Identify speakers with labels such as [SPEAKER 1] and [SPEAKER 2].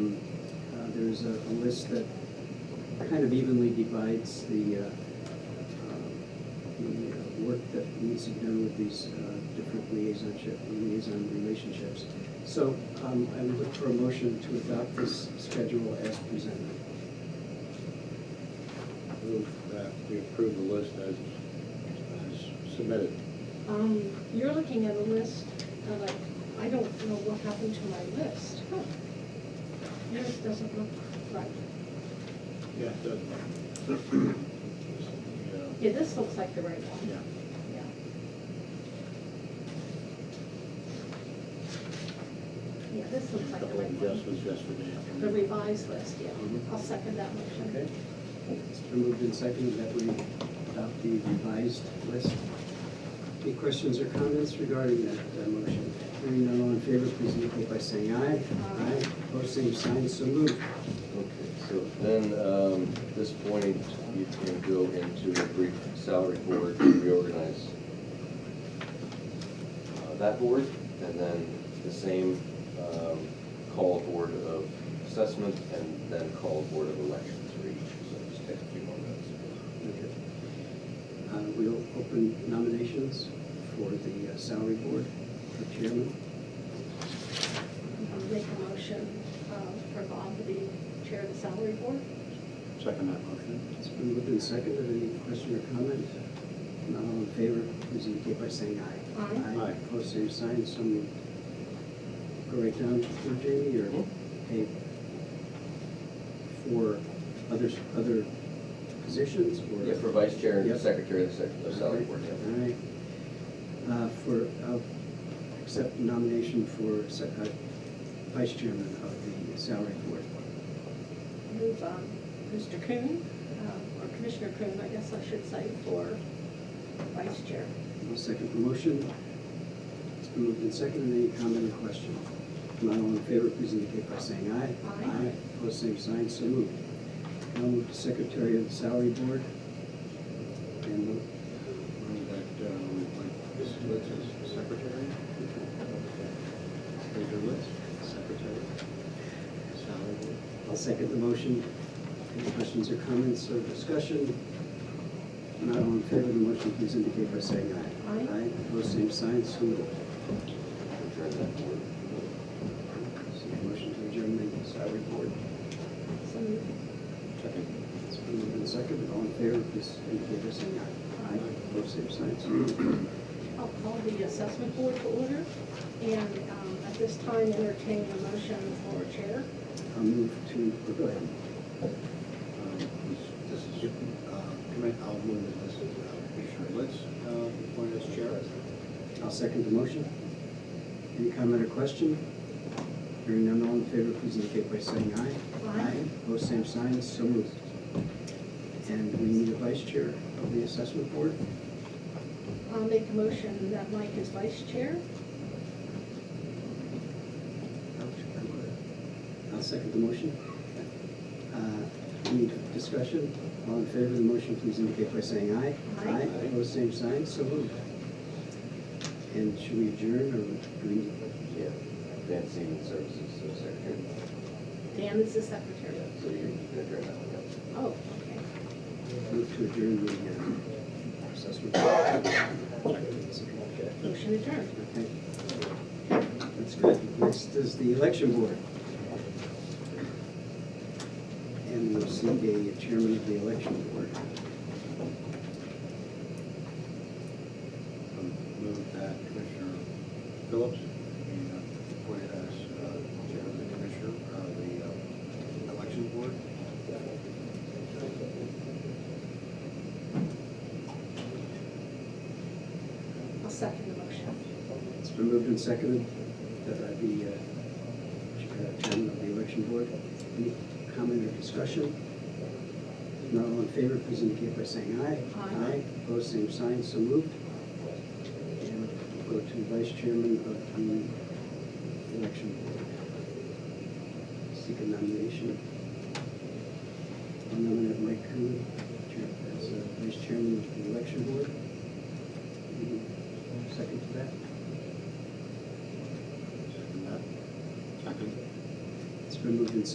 [SPEAKER 1] Uh, there's a, a list that kind of evenly divides the, uh, um, the uh, work that needs to be done with these, uh, different liaisonship, liaison relationships. So, um, I would look for a motion to adopt this schedule as presented.
[SPEAKER 2] Move that we approve the list as as submitted.
[SPEAKER 3] Um, you're looking at a list, uh, like, I don't know what happened to my list. Yours doesn't look right.
[SPEAKER 2] Yeah, it does. Yeah,
[SPEAKER 3] Yeah, this looks like the right one.
[SPEAKER 2] yeah.
[SPEAKER 3] Yeah. Yeah, this looks
[SPEAKER 2] A
[SPEAKER 3] like the
[SPEAKER 2] couple
[SPEAKER 3] right
[SPEAKER 2] of
[SPEAKER 3] one.
[SPEAKER 2] adjustments yesterday.
[SPEAKER 3] The revised list, yeah.
[SPEAKER 2] Mhm.
[SPEAKER 3] I'll second that motion.
[SPEAKER 1] Okay? It's been moved and seconded that we adopt the revised list. Any questions or comments regarding that uh, motion? Hearing none, all in favor, please indicate by saying aye.
[SPEAKER 3] Aye.
[SPEAKER 1] Opposed, same sign, so moved.
[SPEAKER 4] Okay, so then, um, at this point, you can go into a brief salary board to reorganize uh, that board, and then the same, um, call board of assessment, and then call board of elections for each, so just take a few more minutes.
[SPEAKER 1] Okay. Uh, We'll open nominations for the uh, salary board for chairman.
[SPEAKER 3] I'll Make a motion uh, for Bob to be chair of the salary board.
[SPEAKER 2] Second that motion.
[SPEAKER 1] It's been moved and seconded. Any question or comment? Not all in favor, please indicate by saying aye.
[SPEAKER 3] Aye.
[SPEAKER 2] Aye.
[SPEAKER 1] Opposed, same sign, so moved. Go right down for Jamie, or,
[SPEAKER 4] Mhm.
[SPEAKER 1] okay, for others, other positions, or?
[SPEAKER 4] Yeah, for vice chair
[SPEAKER 1] Yep.
[SPEAKER 4] and secretary of the sec- of salary board, yeah.
[SPEAKER 1] All right. Uh, For, uh, accept nomination for se- uh, vice chairman of the salary board.
[SPEAKER 3] Move um, Mr. Coon, uh, or Commissioner Coon, I guess I should say, for vice chair.
[SPEAKER 1] I'll second the motion. It's been moved and seconded. Any comment or question? Not all in favor, please indicate by saying aye.
[SPEAKER 3] Aye.
[SPEAKER 1] Opposed, same sign, so moved. Now move to secretary of the salary board. And we'll
[SPEAKER 2] Move that, uh, we appoint this Litz as secretary. Major Litz, secretary. Salary board.
[SPEAKER 1] I'll second the motion. Any questions or comments or discussion? Not all in favor of the motion, please indicate by saying aye.
[SPEAKER 3] Aye.
[SPEAKER 1] opposed, same sign, so moved.
[SPEAKER 4] Adjourn that board.
[SPEAKER 1] So Motion to adjourn the salary board.
[SPEAKER 3] So
[SPEAKER 2] Second.
[SPEAKER 1] It's been moved and seconded, all in favor, please indicate by saying aye. Aye, opposed, same sign, so moved.
[SPEAKER 3] I'll call the assessment board to order, and um, at this time entertain a motion for chair.
[SPEAKER 1] I'll move to, oh, go ahead.
[SPEAKER 2] Um, This this is, uh, commit, I'll move that this is uh, Commissioner Litz, uh, appointed as chair.
[SPEAKER 1] I'll second the motion. Any comment or question? Hearing none, all in favor, please indicate by saying aye.
[SPEAKER 3] Aye.
[SPEAKER 1] Opposed, same sign, so moved. And we need a vice chair of the assessment board.
[SPEAKER 3] I'll make a motion that Mike is vice chair.
[SPEAKER 1] I'll second the motion. Uh, Any discussion? All in favor of the motion, please indicate by saying aye.
[SPEAKER 3] Aye.
[SPEAKER 1] Opposed, same sign, so moved. And should we adjourn or do we need?
[SPEAKER 4] Yeah, advanced human services, so secretary.
[SPEAKER 3] Dan is the
[SPEAKER 4] Yeah,
[SPEAKER 3] secretary.
[SPEAKER 4] so you you can adjourn that one, yeah.
[SPEAKER 3] Oh, okay.
[SPEAKER 1] Move to adjourn the uh, assessment. Okay,
[SPEAKER 3] Motion adjourned.
[SPEAKER 1] That's good. Next is the election board. And we'll see the chairman of the election board.
[SPEAKER 2] Um, Move that Commissioner Phillips be uh, appointed as uh, chair of the commissioner, uh, the uh, election board.
[SPEAKER 3] I'll second the motion.
[SPEAKER 1] It's been moved and seconded that I be uh, ch- uh, chairman of the election board. Any comment or discussion? If Not all in favor, please indicate by saying aye.
[SPEAKER 3] Aye.
[SPEAKER 1] Opposed, same sign, so moved. And go to vice chairman of the election board. Seek a nomination. I'll nominate Mike Coon chair- as uh, vice chairman of the election board. Any Second to that?
[SPEAKER 2] Second that. Second.
[SPEAKER 1] It's been moved and